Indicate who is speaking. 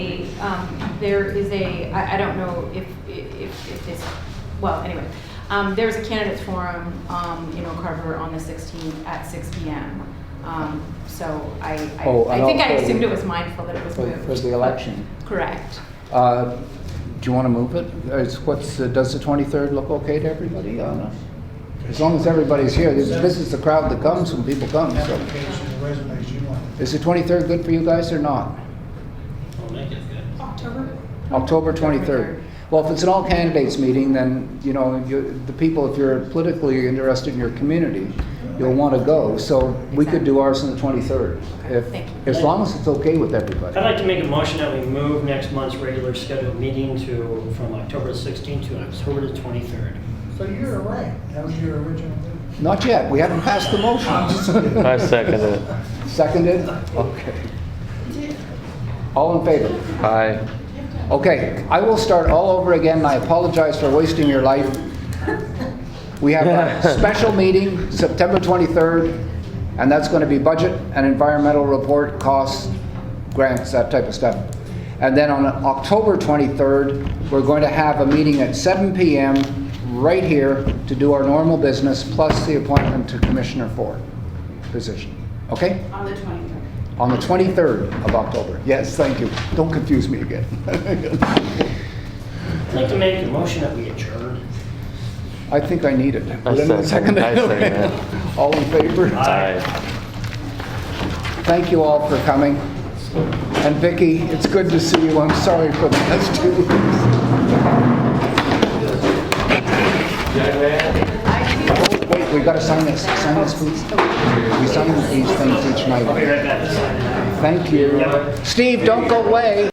Speaker 1: um, there is a, I, I don't know if, if, if this, well, anyway. Um, there's a candidates forum, um, in Oak Harbor on the sixteenth at six P M. Um, so I,
Speaker 2: Oh,
Speaker 1: I,
Speaker 2: and
Speaker 1: I think I
Speaker 2: also-
Speaker 1: assumed it was mindful that it was
Speaker 2: For-
Speaker 1: moved.
Speaker 2: for the election.
Speaker 1: Correct.
Speaker 2: Uh, Do you want to move it? Is- what's- uh, does the 23rd look okay to everybody? I don't know. As long as everybody's here, this this is the crowd that comes when people come, so.
Speaker 3: Application, and resumes, you want it.
Speaker 2: Is the 23rd good for you guys or not?
Speaker 4: I'll make it good.
Speaker 5: October?
Speaker 2: October 23rd. Well, if it's an all candidates meeting, then, you know, you- the people, if you're politically interested in your community, you'll want to go. So we could do ours on the 23rd, if,
Speaker 1: Thank you.
Speaker 2: as long as it's okay with everybody.
Speaker 4: I'd like to make a motion that we move next month's regular scheduled meeting to, from October 16th to October the 23rd.
Speaker 3: So you're away. That was your original thing.
Speaker 2: Not yet, we haven't passed the motion.
Speaker 6: I second it.
Speaker 2: Seconded? Okay. All in favor?
Speaker 6: Aye.
Speaker 2: Okay, I will start all over again, and I apologize for wasting your life. We have a special meeting, September 23rd, and that's going to be budget and environmental report, costs, grants, that type of stuff. And then on October 23rd, we're going to have a meeting at 7 PM right here to do our normal business, plus the appointment to Commissioner Ford position. Okay?
Speaker 5: On the 23rd.
Speaker 2: On the 23rd of October. Yes, thank you. Don't confuse me again.
Speaker 4: I'd like to make a motion that we adjourn.
Speaker 2: I think I need it.
Speaker 6: I second- I second it.
Speaker 2: All in favor?
Speaker 6: Aye.
Speaker 2: Thank you all for coming. And Vicki, it's good to see you. I'm sorry for the last two weeks. Oh, Wait, we gotta sign this. Sign this, please. We sign these things each night.
Speaker 4: I'll be right back to sign it.
Speaker 2: Thank you. Steve, don't go away.